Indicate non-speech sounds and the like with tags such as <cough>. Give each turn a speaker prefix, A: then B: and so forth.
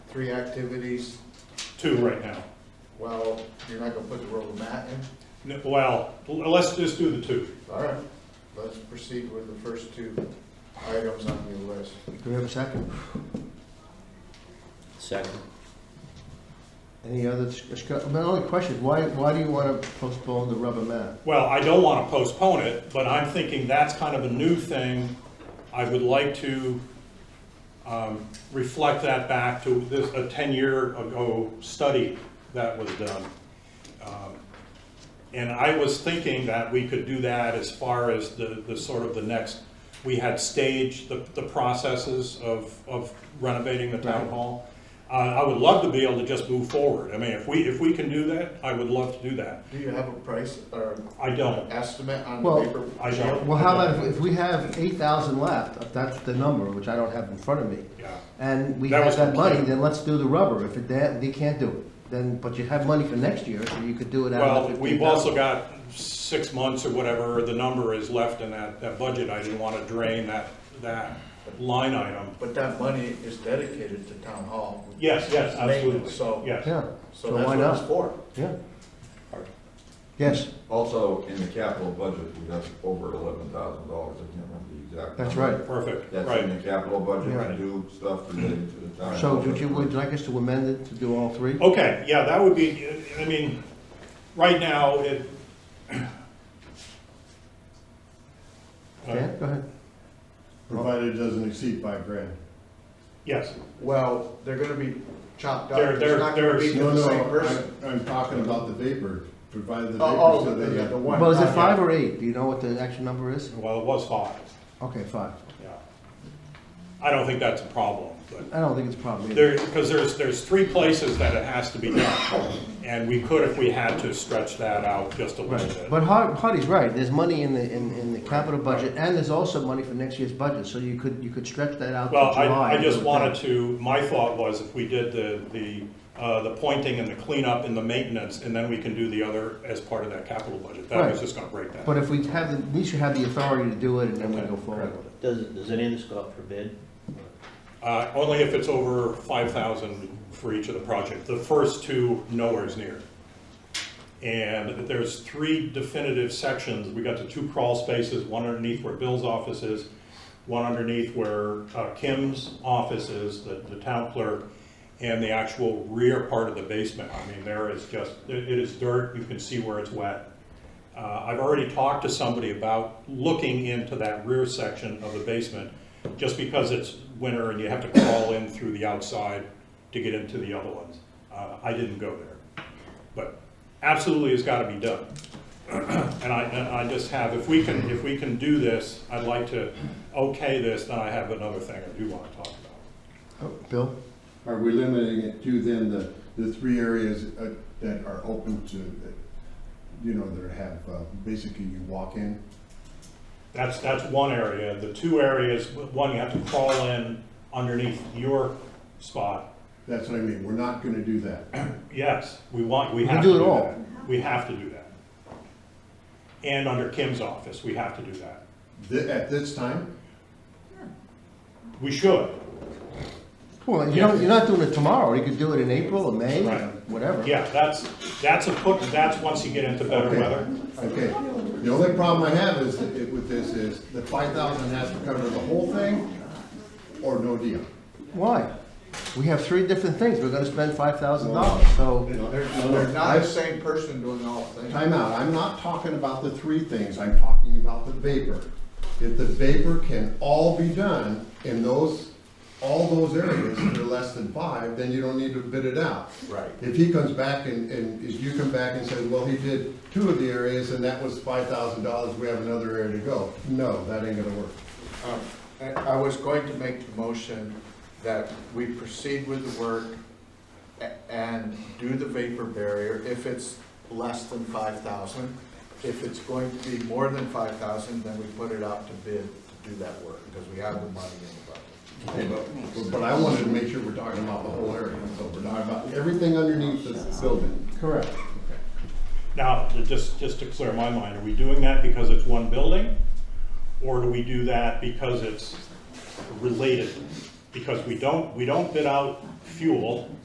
A: three activities,
B: two right now.
A: well, you're not gonna put the rubber mat in?
B: N- Well, l- let's just do the two.
A: All right, let's proceed with the first two items on the list.
C: Do we have a second?
D: Second.
C: Any other discussion? My only question, is why, why do you want to postpone the rubber mat?
B: Well, I don't want to postpone it, but I'm thinking that's kind of a new thing. I would like to um, reflect that back to this, a 10-year ago study that was done. Um, And I was thinking that we could do that as far as the, the sort of the next, we had staged the, the processes of, of renovating the town
C: Right.
B: hall. Uh, I would love to be able to just move forward. I mean, if we, if we can do that, I would love to do that.
A: Do you have a price or
B: I don't.
A: estimate on
C: Well,
A: paper?
B: I don't.
C: Well, how about if, if we have eight thousand left, if that's the number, which I don't have in front of me,
B: Yeah,
C: and we
B: That
C: have
B: was
C: that money,
B: complete.
C: then let's do the rubber. If it, they, they can't do it, then, but you have money for next year, so you could do it out
B: well,
C: of the fifteen
B: we've
C: thousand.
B: also got six months or whatever the number is left in that, that budget, I didn't wanna drain that, that line item.
A: But that money is dedicated to town hall.
B: Yes, yes, absolutely,
A: Maintenance, So,
B: yes.
C: Yeah,
A: so
C: so
A: that's
C: why
A: what it's
C: not?
A: for.
C: Yeah. Yes,
E: Also, in the capital budget, we have over eleven thousand dollars, I can't remember the exact.
C: that's
E: number.
C: right.
B: Perfect,
E: That's in
B: right.
E: the capital budget,
C: Yeah.
E: to do stuff related to the town.
C: So would you, would you like us to amend it to do all three?
B: Okay, yeah, that would be, I mean, right now, it. Oh,
C: Dan, go ahead.
F: Provided it doesn't exceed five grand.
B: Yes,
A: Well, they're gonna be chopped up.
B: They're-
A: It's not gonna
B: they're-
A: be
F: No,
A: to the
F: no,
A: same person.
F: I- I'm talking about the vapor, provided the
A: Oh,
F: vapor,
A: oh,
F: so
A: the,
F: they
A: the the
F: got
A: one.
C: Well, is
B: Uh,
C: it
A: contract.
C: five or eight? Do you know what the actual number is?
B: well, it was five,
C: Okay, five.
B: yeah. I don't think that's a problem, but.
C: I don't think it's a problem either.
B: There, because there's, there's three places that it has to be done, and we could, if we had to, stretch that out just a little
C: Right,
B: bit.
C: but Har- Hardy's right, there's money in the, in, in the capital budget, and there's also money for next year's budget, so you could, you could stretch that out to
B: Well,
C: July.
B: I, I
C: would
B: just
C: think.
B: wanted to, my thought was if we did the, the, uh, the pointing and the cleanup and the maintenance, and then we can do the other as part of that capital budget. That was
C: Right.
B: just gonna break that.
C: But if we have, the- at least you have the authority to do it, and then we go forward with it.
D: Does, does any of this go up for bid?
B: Uh, only if it's over five thousand for each of the project. The first two, nowhere's near. And there's three definitive sections. We got the two crawl spaces, one underneath where Bill's office is, one underneath where uh, Kim's office is, the, the town clerk, and the actual rear part of the basement. I mean, there is just, it it is dirt, you can see where it's wet. Uh, I've already talked to somebody about looking into that rear section of the basement, just because it's winter and you have to crawl in through the outside to get into the other ones. Uh, I didn't go there, but absolutely it's gotta be done. <clears throat> And I, and I just have, if we can, if we can do this, I'd like to okay this, then I have another thing I do wanna talk about.
C: Oh, Bill?
F: Are we limiting it to then the, the three areas uh, that are open to, that, you know, that have, uh, basically you walk in?
B: That's, that's one area. The two areas, one, you have to crawl in underneath your spot,
F: That's what I mean, we're not gonna do that. <clears throat>
B: Yes, we want, we
C: We
B: have to
C: do it
B: do
C: all.
B: that. We have to do that. And under Kim's office, we have to do that.
F: Thi- At this time,
B: We should.
C: Well, you don't, you're not doing it tomorrow, you could do it in April or May,
B: Right.
C: whatever.
B: Yeah, that's, that's a put, that's once you get into better
F: Okay.
B: weather.
F: okay. The only problem I have is, that it- with this is, the five thousand has to cover the whole thing, or no deal.
C: Why? We have three different things, we're gonna spend five thousand dollars, so,
A: They're, they're not the same person doing all things.
F: Time out, I'm not talking about the three things, I'm talking about the vapor. If the vapor can all be done in those, all those areas that are less than five, then you don't need to bid it out.
A: Right.
F: If he comes back and, and if you come back and says, well, he did two of the areas and that was five thousand dollars, we have another area to go. No, that ain't gonna work.
A: Um, I I was going to make the motion that we proceed with the work a- and do the vapor barrier if it's less than five thousand. If it's going to be more than five thousand, then we put it out to bid to do that work, because we have the money in the budget.
F: Okay, But but I wanted to make sure we're talking about the whole area, so we're talking about everything underneath this building.
C: correct.
B: Now, just, just to clear my mind, are we doing that because it's one building? Or do we do that because it's related? because we don't, we don't bid out fuel